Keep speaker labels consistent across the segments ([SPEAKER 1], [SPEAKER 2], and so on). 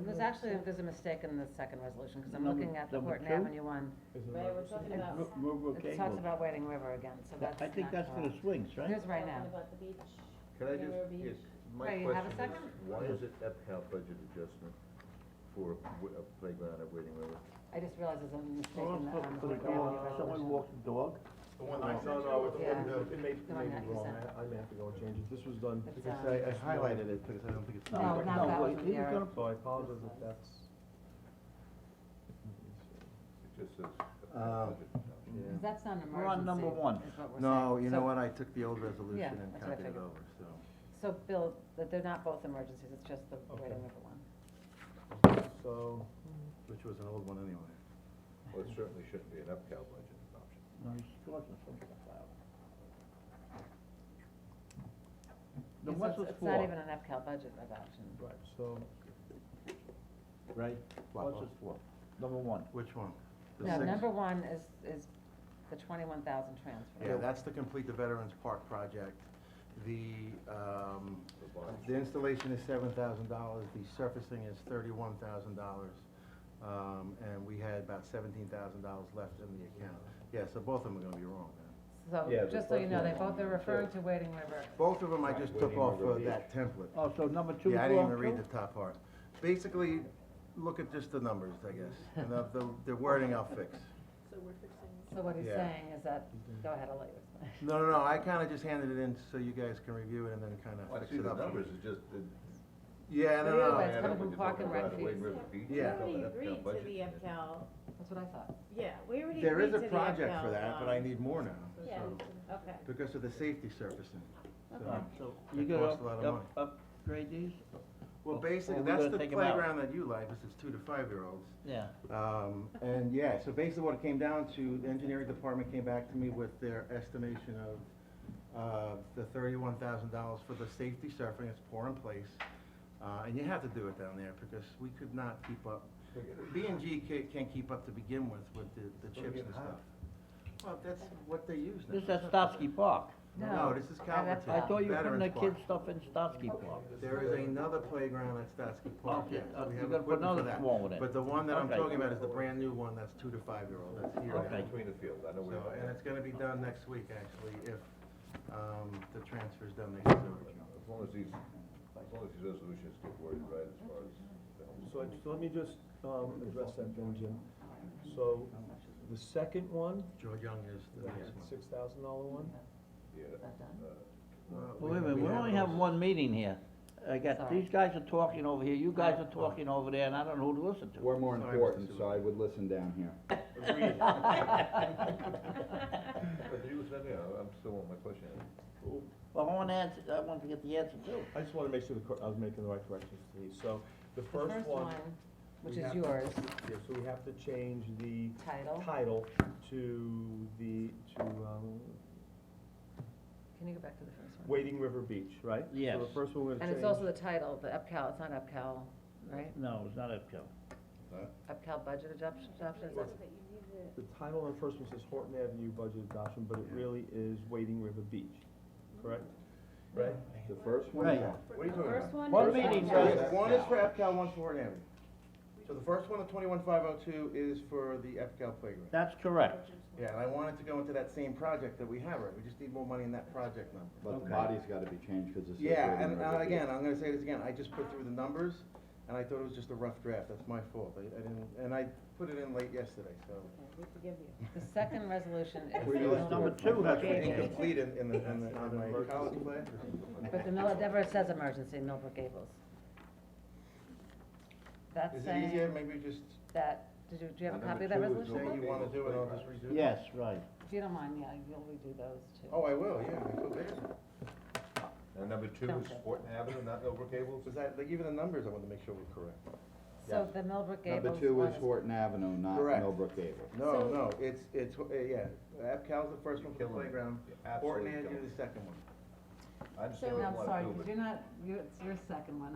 [SPEAKER 1] There's actually, there's a mistake in the second resolution, because I'm
[SPEAKER 2] Number-
[SPEAKER 1] looking at the
[SPEAKER 2] number
[SPEAKER 1] Horton
[SPEAKER 2] two?
[SPEAKER 1] Avenue one.
[SPEAKER 3] Right, we're talking about,
[SPEAKER 2] Ro- Road
[SPEAKER 1] It
[SPEAKER 2] Road
[SPEAKER 1] talks
[SPEAKER 2] Cable.
[SPEAKER 1] about Wading River again, so
[SPEAKER 2] That-
[SPEAKER 1] that's
[SPEAKER 2] I
[SPEAKER 1] not
[SPEAKER 2] think that's for the
[SPEAKER 1] correct.
[SPEAKER 2] swings,
[SPEAKER 1] It
[SPEAKER 2] right?
[SPEAKER 1] is right now.
[SPEAKER 3] talking about the beach.
[SPEAKER 4] Can I just,
[SPEAKER 3] River
[SPEAKER 4] yes,
[SPEAKER 3] Beach.
[SPEAKER 4] my
[SPEAKER 1] Wait, you have a
[SPEAKER 4] question is,
[SPEAKER 1] second?
[SPEAKER 4] why is it EPCAL budget adjustment for a w- a playground at Waiting River?
[SPEAKER 1] I just realized there's a mistake
[SPEAKER 2] Or
[SPEAKER 1] in the,
[SPEAKER 2] for-
[SPEAKER 1] um,
[SPEAKER 2] for the
[SPEAKER 1] Horton
[SPEAKER 2] dog,
[SPEAKER 1] Avenue
[SPEAKER 2] someone
[SPEAKER 1] resolution.
[SPEAKER 2] walks the dog,
[SPEAKER 5] The one I sent you.
[SPEAKER 1] the one- Yeah.
[SPEAKER 6] It may, it
[SPEAKER 1] The one
[SPEAKER 6] may be
[SPEAKER 1] that you
[SPEAKER 6] wrong,
[SPEAKER 1] sent.
[SPEAKER 6] I, I may have to go and change it, this was done,
[SPEAKER 1] It's,
[SPEAKER 6] because
[SPEAKER 1] uh,
[SPEAKER 6] I, I highlighted it, because I don't think it's.
[SPEAKER 1] No,
[SPEAKER 6] not-
[SPEAKER 1] not that
[SPEAKER 2] wait,
[SPEAKER 1] wasn't
[SPEAKER 2] he was
[SPEAKER 1] there.
[SPEAKER 2] gonna-
[SPEAKER 6] So I apologize if that's.
[SPEAKER 4] It just says
[SPEAKER 6] Uh,
[SPEAKER 4] EPCAL budget. adjustment.
[SPEAKER 6] Yeah.
[SPEAKER 1] 'Cause that's not an emergency.
[SPEAKER 2] We're on number one.
[SPEAKER 1] is what we're
[SPEAKER 6] No,
[SPEAKER 1] saying.
[SPEAKER 6] you know
[SPEAKER 1] So-
[SPEAKER 6] what, I took the old resolution and
[SPEAKER 1] that's what I
[SPEAKER 6] copied it
[SPEAKER 1] figured.
[SPEAKER 6] over, so.
[SPEAKER 1] So, Bill, that they're not both emergencies, it's just the Wading River one.
[SPEAKER 6] So, which was an old one anyway.
[SPEAKER 4] Well, it certainly shouldn't be an EPCAL budget adoption.
[SPEAKER 2] no, he's talking some stuff out. The
[SPEAKER 1] It's-
[SPEAKER 2] what's
[SPEAKER 1] it's-
[SPEAKER 2] this
[SPEAKER 1] It's not even
[SPEAKER 2] for?
[SPEAKER 1] an FCAL budget adoption.
[SPEAKER 6] Right, so.
[SPEAKER 2] Right,
[SPEAKER 6] What,
[SPEAKER 2] what's this for? Number one.
[SPEAKER 6] Which one? The
[SPEAKER 1] No,
[SPEAKER 6] six-
[SPEAKER 1] number one is, is the twenty-one thousand transfer.
[SPEAKER 6] Yeah, that's to complete the Veterans Park project. The, um,
[SPEAKER 4] Revised.
[SPEAKER 6] the installation is seven thousand dollars, the surfacing is thirty-one thousand dollars. Um, and we had about seventeen thousand dollars left in the account. Yeah, so both of them are gonna be wrong, man.
[SPEAKER 4] Yeah,
[SPEAKER 1] So,
[SPEAKER 4] the
[SPEAKER 1] just so you
[SPEAKER 4] first
[SPEAKER 1] know, they
[SPEAKER 4] one.
[SPEAKER 1] both are referring to Wading River.
[SPEAKER 6] Both of them I
[SPEAKER 4] Right,
[SPEAKER 6] just
[SPEAKER 4] we
[SPEAKER 6] took
[SPEAKER 4] didn't
[SPEAKER 6] off of
[SPEAKER 4] remember
[SPEAKER 6] that template.
[SPEAKER 2] Oh, so number two is
[SPEAKER 6] Yeah, I didn't even
[SPEAKER 2] wrong
[SPEAKER 6] read
[SPEAKER 2] too?
[SPEAKER 6] the top part. Basically, look at just the numbers, I guess, and the, the- the wording I'll fix.
[SPEAKER 3] So we're fixing.
[SPEAKER 1] So what he's
[SPEAKER 6] Yeah.
[SPEAKER 1] saying is that, go ahead, I'll let you explain.
[SPEAKER 6] No, no, no, I kinda just handed it in so you guys can review it and then kinda
[SPEAKER 4] Well, Oh, I
[SPEAKER 6] fix
[SPEAKER 4] see
[SPEAKER 6] it
[SPEAKER 4] the
[SPEAKER 6] up.
[SPEAKER 4] numbers, it just, it.
[SPEAKER 1] Yeah,
[SPEAKER 6] Yeah, no, no,
[SPEAKER 1] but
[SPEAKER 6] no.
[SPEAKER 1] it's coming from Park and Rec fees.
[SPEAKER 6] Yeah.
[SPEAKER 3] We already agreed to the EPCAL,
[SPEAKER 1] That's what I thought.
[SPEAKER 3] yeah, we already agreed to the EPCAL.
[SPEAKER 6] There is a project for that, but I
[SPEAKER 3] um,
[SPEAKER 6] need more now,
[SPEAKER 3] Yeah,
[SPEAKER 6] so,
[SPEAKER 3] okay.
[SPEAKER 6] because of the safety surfacing. so-
[SPEAKER 2] Alright, So
[SPEAKER 6] It
[SPEAKER 2] you gonna
[SPEAKER 6] costs a lot of
[SPEAKER 2] up,
[SPEAKER 6] money.
[SPEAKER 2] up, upgrade these?
[SPEAKER 6] Well, basically,
[SPEAKER 2] we're
[SPEAKER 6] that's
[SPEAKER 2] gonna
[SPEAKER 6] the
[SPEAKER 2] take 'em out.
[SPEAKER 6] playground that you like, this is two to five-year-olds.
[SPEAKER 2] Yeah.
[SPEAKER 6] Um, and yeah, so basically what it came down to, the engineering department came back to me with their estimation of, uh, the thirty-one thousand dollars for the safety surfing, it's poor in place. Uh, and you have to do it down there because we could not keep up, B and G can't, can't keep up to begin with, with the, the
[SPEAKER 4] We're
[SPEAKER 6] chips
[SPEAKER 4] getting
[SPEAKER 6] and
[SPEAKER 4] hot.
[SPEAKER 6] stuff. Well, that's what they use now.
[SPEAKER 2] This is at Stotsky Park.
[SPEAKER 6] No, this is
[SPEAKER 1] No,
[SPEAKER 6] Calverton.
[SPEAKER 1] that's
[SPEAKER 2] I
[SPEAKER 1] Yeah.
[SPEAKER 2] thought you were putting the
[SPEAKER 6] Veterans
[SPEAKER 2] kids'
[SPEAKER 6] Park.
[SPEAKER 2] stuff in Stotsky Park.
[SPEAKER 6] There is another playground at Stotsky Park,
[SPEAKER 2] Okay,
[SPEAKER 6] yes,
[SPEAKER 2] uh,
[SPEAKER 6] we
[SPEAKER 2] you
[SPEAKER 6] have
[SPEAKER 2] gotta put
[SPEAKER 6] equipment
[SPEAKER 2] another
[SPEAKER 6] for that.
[SPEAKER 2] one with it.
[SPEAKER 6] But the one that I'm
[SPEAKER 2] Okay.
[SPEAKER 6] talking about is the brand-new one, that's two to five-year-old, that's here now.
[SPEAKER 2] Okay.
[SPEAKER 4] Between the field, I know
[SPEAKER 6] So,
[SPEAKER 4] we have.
[SPEAKER 6] and it's gonna be done next week, actually, if, um, the transfer's done next week.
[SPEAKER 4] As long as these, as long as these resolutions get worded right as far as. the whole-
[SPEAKER 6] So,
[SPEAKER 7] So let me just, um, address that then, Jim. So, the second one,
[SPEAKER 6] Joe Young is the next one.
[SPEAKER 7] six thousand dollar one,
[SPEAKER 4] Yeah.
[SPEAKER 6] Well,
[SPEAKER 2] Wait a minute,
[SPEAKER 6] Uh, we
[SPEAKER 2] we only have
[SPEAKER 6] those.
[SPEAKER 2] one meeting here. I got,
[SPEAKER 1] Sorry.
[SPEAKER 2] these guys are talking over here, you guys are talking over there, and I don't know who to listen to.
[SPEAKER 8] We're more
[SPEAKER 6] Sorry, Mr.
[SPEAKER 8] important, so
[SPEAKER 6] Zuber.
[SPEAKER 8] I would listen down here.
[SPEAKER 4] But you said, yeah, I'm still on my question.
[SPEAKER 2] Well, I want answer, I want to get the answer too.
[SPEAKER 7] I just wanna make sure the, cor- I was making the right corrections to these, so, the
[SPEAKER 1] The
[SPEAKER 7] first one.
[SPEAKER 1] Which
[SPEAKER 7] we
[SPEAKER 1] is
[SPEAKER 7] have-
[SPEAKER 1] yours,
[SPEAKER 7] Yeah, so we have to change the
[SPEAKER 1] title,
[SPEAKER 7] title to the, to, um,
[SPEAKER 1] can you go back to the first one?
[SPEAKER 7] Wading River Beach, right? So
[SPEAKER 2] Yes.
[SPEAKER 7] the first one we're
[SPEAKER 1] And
[SPEAKER 7] gonna
[SPEAKER 1] it's also
[SPEAKER 7] change,
[SPEAKER 1] the title, the EPCAL, it's not EPCAL, right?
[SPEAKER 2] No, it's not Epco.
[SPEAKER 1] EPCAL budget adoption, adoption, is that-
[SPEAKER 7] the title on the first one says Horton Avenue Budget Adoption, but it really is Wading River Beach, correct? Right?
[SPEAKER 8] The first one,
[SPEAKER 2] Right.
[SPEAKER 8] yeah.
[SPEAKER 4] What are you talking about?
[SPEAKER 3] First one.
[SPEAKER 2] One
[SPEAKER 3] is-
[SPEAKER 2] meeting,
[SPEAKER 6] So,
[SPEAKER 2] guys.
[SPEAKER 6] yes, One is for EPCAL, one's for Horton Avenue. So the first one, the twenty-one five oh two, is for the EPCAL playground.
[SPEAKER 2] That's correct.
[SPEAKER 6] Yeah, and I wanted to go into that same project that we have, right, we just need more money in that project number.
[SPEAKER 8] But
[SPEAKER 2] Okay.
[SPEAKER 8] the body's gotta be changed, cause it's.
[SPEAKER 6] Yeah, and, and again, I'm gonna say this again, I just put through the numbers, and I thought it was just a rough draft, that's my fault, I, I didn't, and I put it in late yesterday, so.
[SPEAKER 3] Okay, We forgive you.
[SPEAKER 1] the second resolution is the
[SPEAKER 6] We used
[SPEAKER 1] mill-
[SPEAKER 6] to
[SPEAKER 2] Number
[SPEAKER 6] work
[SPEAKER 2] two,
[SPEAKER 6] on that.
[SPEAKER 2] okay.
[SPEAKER 6] Incomplete in, in the, in the, in my college class.
[SPEAKER 1] but the mill, it never says emergency, Millbrook Gables. That's
[SPEAKER 6] Is it easier,
[SPEAKER 1] saying
[SPEAKER 6] maybe just
[SPEAKER 1] that, did you, do you have a
[SPEAKER 4] And
[SPEAKER 1] copy
[SPEAKER 4] number
[SPEAKER 1] of that
[SPEAKER 4] two is
[SPEAKER 1] resolution?
[SPEAKER 6] say
[SPEAKER 4] over.
[SPEAKER 1] Bob?
[SPEAKER 6] you wanna do it, I'll just redo it?
[SPEAKER 2] Yes, right.
[SPEAKER 1] If you don't mind, yeah, you'll redo those too.
[SPEAKER 6] Oh, I will, yeah, I feel bad.
[SPEAKER 4] And number two is
[SPEAKER 1] Okay.
[SPEAKER 4] Horton Avenue, not Millbrook Gables?
[SPEAKER 6] Because I, like, even the numbers, I want to make sure we're correct.
[SPEAKER 1] So the Millbrook
[SPEAKER 8] Number
[SPEAKER 1] Gables
[SPEAKER 8] two
[SPEAKER 1] one
[SPEAKER 8] is Horton Avenue, not
[SPEAKER 6] Correct.
[SPEAKER 8] Millbrook Gable.
[SPEAKER 6] No,
[SPEAKER 3] So-
[SPEAKER 6] no, it's, it's, uh, yeah, Cal's the first one for the
[SPEAKER 4] Killing it.
[SPEAKER 6] playground, Horton
[SPEAKER 4] Absolutely.
[SPEAKER 6] Avenue
[SPEAKER 4] killing
[SPEAKER 6] the second one.
[SPEAKER 4] it. I understand
[SPEAKER 3] So-
[SPEAKER 1] No,
[SPEAKER 4] what you
[SPEAKER 1] I'm
[SPEAKER 4] wanna
[SPEAKER 1] sorry,
[SPEAKER 4] do,
[SPEAKER 1] because
[SPEAKER 4] but-
[SPEAKER 1] you're not, you're, it's your second one.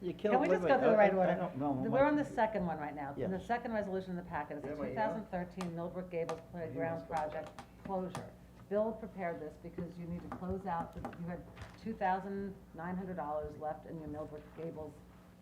[SPEAKER 2] You killed.
[SPEAKER 1] Can we
[SPEAKER 2] wait a
[SPEAKER 1] just go
[SPEAKER 2] minute,
[SPEAKER 1] through the
[SPEAKER 2] I-
[SPEAKER 1] right
[SPEAKER 2] I- I
[SPEAKER 1] order?
[SPEAKER 2] don't know.
[SPEAKER 1] We're on the second one right now. And the
[SPEAKER 2] Yes.
[SPEAKER 1] second resolution in the packet is
[SPEAKER 6] Yeah,
[SPEAKER 1] the
[SPEAKER 6] my
[SPEAKER 1] two
[SPEAKER 6] email?
[SPEAKER 1] thousand thirteen Millbrook Gables Playground
[SPEAKER 6] email's got
[SPEAKER 1] Project closure. Bill prepared this because you need to close out, the- you had two thousand nine hundred dollars left in your Millbrook Gables